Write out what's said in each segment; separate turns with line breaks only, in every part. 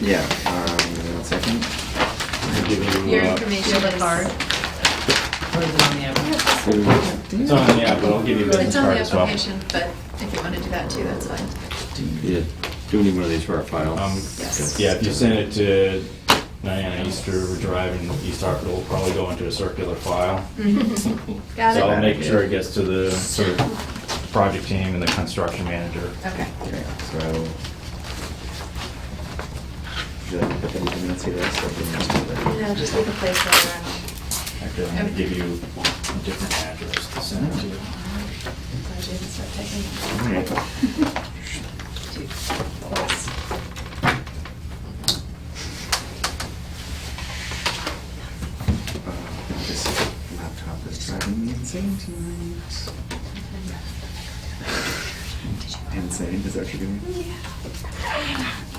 Yeah, um, one second.
I'll give you,
Your
uh,
information
Shield
is.
card.
Or is it on the app?
It's on, yeah, but I'll give you the
It's on
card
the
as well.
application, but if you want to do that too, that's fine.
Yeah, do we need one of these for our file?
Um,
Yes.
Yeah, if you send it to Diana Easter Drive in East Hartford, it'll probably go into a circular file.
Got
So
it?
I'll make sure it gets to the sort of project team and the construction manager.
Okay.
Okay, so. Should I put that in the minutes here? So we can just do that.
No, just leave a placeholder.
Actually, I'm gonna give you a different address to send it to.
Glad you didn't start typing.
All right. Uh, This laptop is driving me insane tonight. Insane is that what you're doing?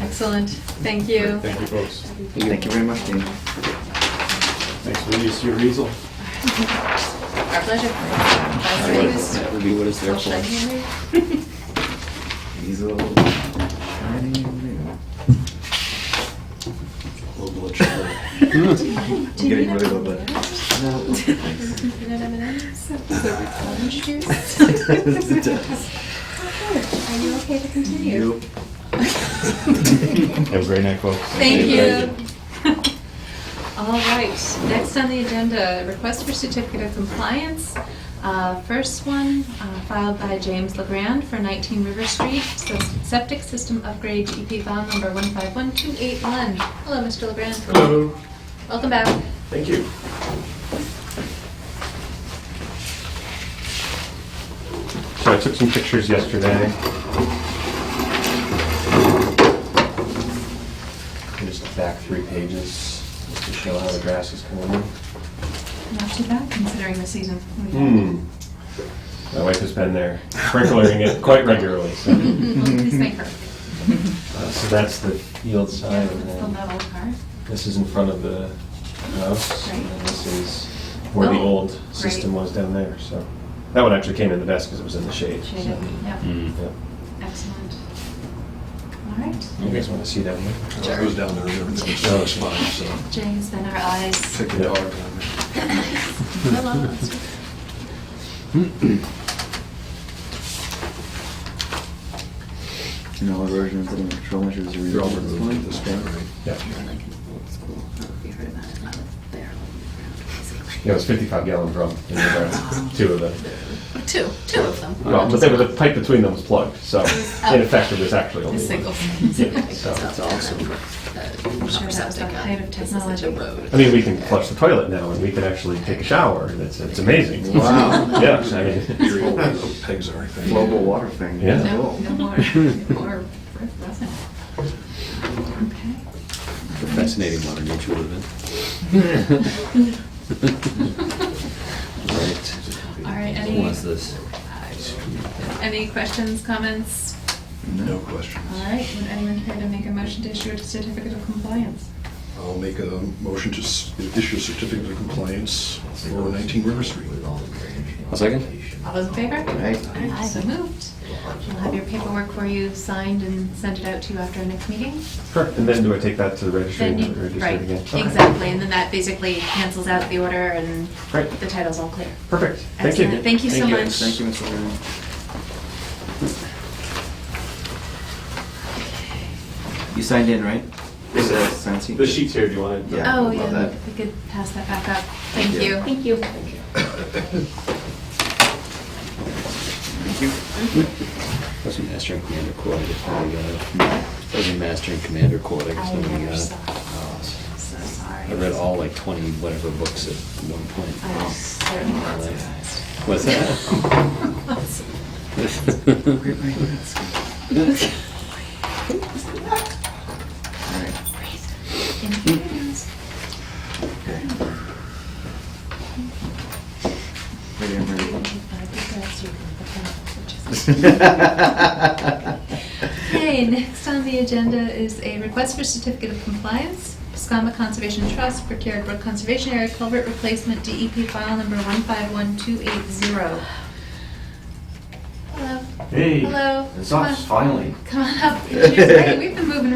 Excellent, thank you.
Thank you, folks.
Thank you very much, Dean.
Thanks for the use of your easel.
Our pleasure.
That was- that would be what it's there
I'll shut
for.
you in.
Diesel.
Global Achiever.
Do you
Getting
need
really
a-
low blood.
You know, M&Ms? Orange juice?
It does.
Are you okay to continue?
Nope.
Have a great night, folks.
Thank you.
Thank
All right, next on the agenda, request for certificate of compliance. Uh, First one uh, filed by James LeGrand for 19 River Street, so septic system upgrade EP file number 151281. Hello, Mr. LeGrand. Hello. Welcome back.
Thank you. So I took some pictures yesterday.
Just back three pages, just to show how the grass is coming in.
Not too bad considering the season. we had.
My wife has been there sprinkling it quite regularly, so.
Mhm. Please make her.
Uh, So that's the field
Yeah,
side,
let's
and
build that
then
old car.
this is in front of the house, and
Right.
then this is where the
Oh,
old
great.
system was down there, so. That one actually came in the best because it was in the shade. so-
Shaded, yeah,
Yeah.
excellent. All right,
You guys want to see that one?
Sure.
I was down there, everything was so fine, so.
Jay has been our eyes.
Took the dog down there.
Hello.
And all versions of the control measures are.
You're all removed at this point, right?
Yeah.
Like an old school, I don't know if you heard about it, like a barrel on the ground, basically. Oh.
Yeah, it was 55 gallon drum in the two of them.
Two, two of them. Oh.
Well, but they were, the pipe between them was plugged, so in effect, it was actually only
A single.
one. Yeah, so-
It's awesome. I'm
sure that was the height of technology.
I mean, we can flush the toilet now, and we can actually take a shower. and It's, it's amazing.
Wow.
Yeah, I mean,
Your old pegs are, I think.
Global water thing.
Yeah.
No,
Cool.
no more, no more, Rick wasn't. Okay,
Fascinating modern nature we live in. Right.
all right,
Who wants
any,
this?
any questions, comments?
No questions.
All right, would anyone care to make a motion to issue a certificate of compliance?
I'll make a motion to s- issue a certificate of compliance for 19 River Street.
A second?
All those in favor?
Right.
Alright, So moved. We'll have your paperwork for you signed and send it out to you after our next meeting.
correct. And then do I take that to the registry
Then
and
you,
register
right,
it again? Okay.
exactly, and then that basically cancels out the order and
Great.
the title's all clear.
Perfect. Thank you.
Excellent. Thank you so much.
Thank you, Mr. Graham. You signed in, right?
Yes, sir.
Sign sheet?
The sheet's here, do you want it?
Yeah.
Oh,
love
yeah,
that.
we could pass that back up. Thank
Yeah.
you.
Thank you.
Thank you.
Wasn't Master and Commander Quad, I guess, when we got it. Wasn't Master and Commander Quad, I guess,
I
when we
never
got it.
saw it. So sorry.
I read all like twenty whatever books at one
I was
point.
certainly not surprised.
What's that?
All right. Okay. Ready, I'm ready.
Okay, next on the agenda is a request for certificate of compliance. Piscoma Conservation Trust, Procure Brook Conservation Area Culvert Replacement, DEP file number 151280. Hello.
Hey.
Hello.
It's
Come
us,
on.
finally.
Come on up. Introduce- hey, We've been moving around.